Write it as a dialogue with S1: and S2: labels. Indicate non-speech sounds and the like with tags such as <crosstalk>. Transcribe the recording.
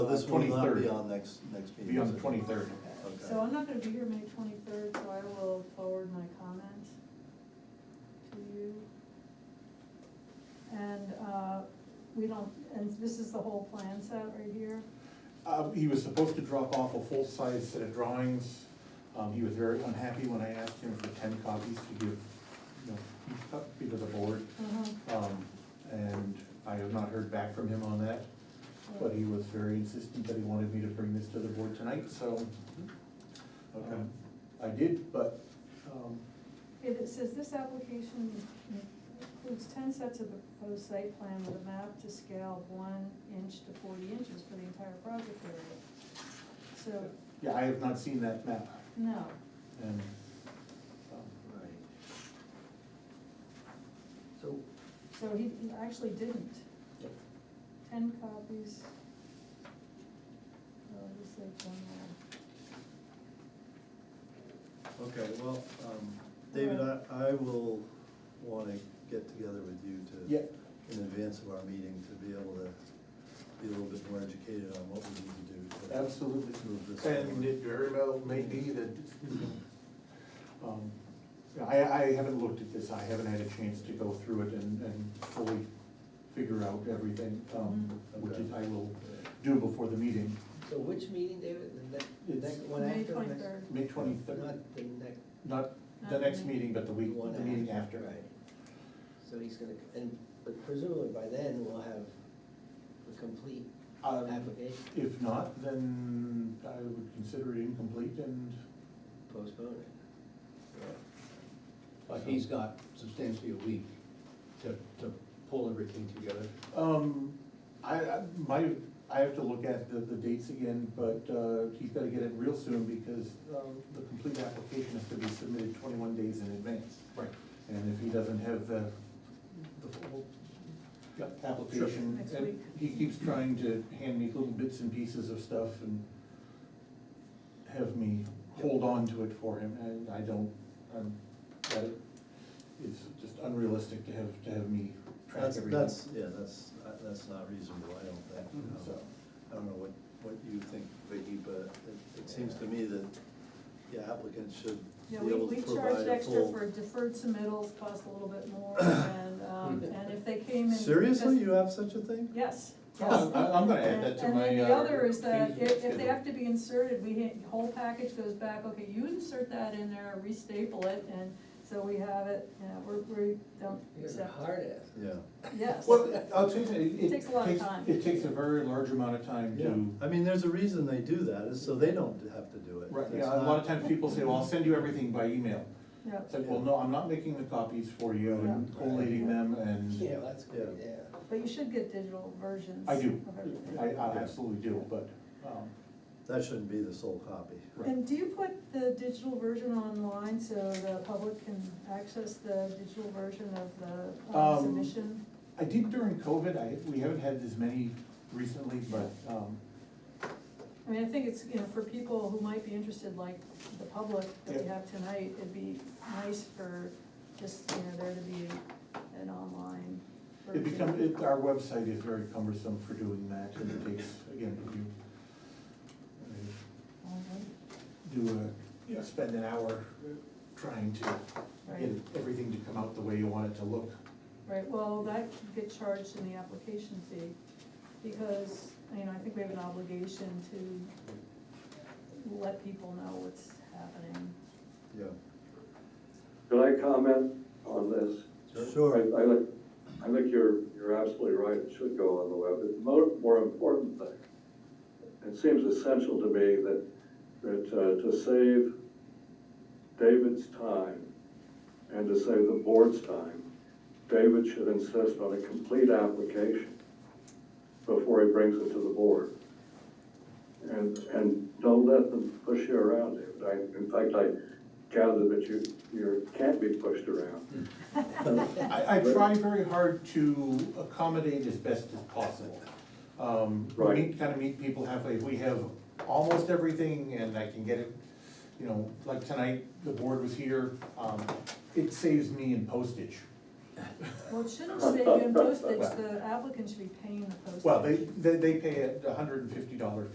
S1: So this will not
S2: 23rd.
S1: be on next, next meeting?
S2: Be on
S1: is
S2: the
S1: it?
S2: 23rd.
S3: So
S1: Okay.
S3: I'm not gonna be here May twenty-third, so I will forward my comment to you. And, uh, we don't, and this is the whole plan set right here,
S2: Uh, he was supposed to drop off a full-size set of drawings. Um, he was very unhappy when I asked him for ten copies to give, you know, each copy to the board.
S3: uh-huh,
S2: Um, and I have not heard back from him on that, but he was very insistent that he wanted me to bring this to the board tonight, so.
S1: Okay.
S2: um, I did, but, um,
S3: It it says this application includes ten sets of the proposed site plan with a map to scale of one inch to forty inches for the entire project area. So,
S2: yeah, I have not seen that map
S3: no,
S2: and, um,
S1: Right.
S4: So,
S3: so he he actually didn't,
S2: yeah.
S3: ten copies. Oh, this is one more.
S1: Okay, well, um, David, I, I will wanna get together with you to.
S2: Yeah.
S1: In advance of our meeting, to be able to be a little bit more educated on what we need to do. to-
S2: Absolutely.
S1: Move this
S2: And
S1: forward.
S2: it very well may be that, um, I, I haven't looked at this, I haven't had a chance to go through it and, and fully figure out everything, um,
S4: Mm-hmm.
S2: which is- I will do before the meeting,
S4: so which meeting, David, the next, the
S2: It's-
S4: next one after?
S3: May
S4: the next-
S3: twenty-third.
S2: May twenty-third,
S4: Not the next,
S2: not the
S3: Not
S2: next
S3: the-
S2: meeting, but the week,
S4: one
S2: the meeting
S4: after,
S2: after.
S4: right. So he's gonna, and, but presumably by then we'll have the complete
S2: Um,
S4: application
S2: If not, then I would consider it incomplete and.
S4: postponed.
S5: But he's got substantially a week to, to pull everything together.
S2: Um, I, I, my, I have to look at the, the dates again, but, uh, he's gotta get it real soon because, um, the complete application has to be submitted twenty-one days in advance.
S5: Right.
S2: And if he doesn't have the, the full, yeah, application,
S3: Next
S2: and
S3: week.
S2: he keeps trying to hand me little bits and pieces of stuff and have me hold on to it for him, and I don't, um, that is just unrealistic to have, to have me track
S1: That's,
S2: everything.
S1: that's, yeah, that's, uh, that's not reasonable, I don't think, you know.
S2: So.
S1: I don't know what, what you think, Vicky, but it, it seems to me that the applicant should be
S3: Yeah, we,
S1: able
S3: we
S1: to
S3: charged
S1: provide a
S3: extra
S1: full.
S3: for deferred submittals, cost a little bit more,
S2: <coughs>
S3: and, um, and if they came in.
S1: Seriously,
S3: because-
S1: you have such a thing?
S3: Yes, yes.
S2: Oh, I- I'm gonna add that to
S3: And
S2: my.
S3: then the
S2: uh,
S3: other is that
S2: things
S3: if, if they
S2: schedule.
S3: have to be inserted, we, hit- whole package goes back, okay, you insert that in there, restaple it, and so we have it, yeah, we're, we don't
S4: You're a
S3: accept.
S4: hard ass.
S1: Yeah.
S3: Yes,
S2: Well, I'll tell you, something, it.
S3: It takes a lot of time.
S2: It takes a very large amount of time
S1: Yeah,
S2: to,
S1: I mean, there's a reason they do that, is so they don't have to do it.
S2: right,
S1: It's
S2: yeah, a lot
S1: not-
S2: of times people say, well, I'll send you everything by email.
S3: yeah,
S2: It's like, well, no, I'm not making the copies for you and
S3: Yeah.
S2: collating them
S4: Yeah,
S2: and,
S4: that's great,
S1: Yeah.
S4: yeah.
S3: but you should get digital versions.
S2: I do,
S3: of everything.
S2: I, I absolutely do, but, um,
S1: That shouldn't be the sole copy.
S3: And do you put the digital version online so the public can access the digital version of the uh,
S2: Um,
S3: submission?
S2: I did during COVID, I, we haven't had as many recently, but, um,
S3: I mean, I think it's, you know, for people who might be interested, like the public that we
S2: Yeah.
S3: have tonight, it'd be nice for just, you know, there to be an online
S2: it
S3: version.
S2: becomes, it, our website is very cumbersome for doing that and it takes, again, if you. I mean, do a, you know, spend an hour trying to get
S3: Right.
S2: everything to come out the way you want it to look.
S3: Right, well, that should get charged in the application fee, because, you know, I think we have an obligation to let people know what's happening.
S1: Yeah.
S6: Can I comment on this?
S1: Sure.
S6: I, I like, I think you're, you're absolutely right, it should go on the web, but the more, more important thing, it seems essential to me that, that uh, to save David's time and to save the board's time, David should insist on a complete application before he brings it to the board. And, and don't let them push you around, David. I, in fact, I gather that you, you can't be pushed around.
S2: I, I try very hard to accommodate as best as possible. Um, we
S6: Right.
S2: meet, kind of meet people halfway, we have almost everything and I can get it, you know, like tonight, the board was here, um, it saves me in postage.
S3: Well, it shouldn't say in postage, the applicant should be paying the postage.
S2: Well, they, they, they pay a hundred and fifty dollar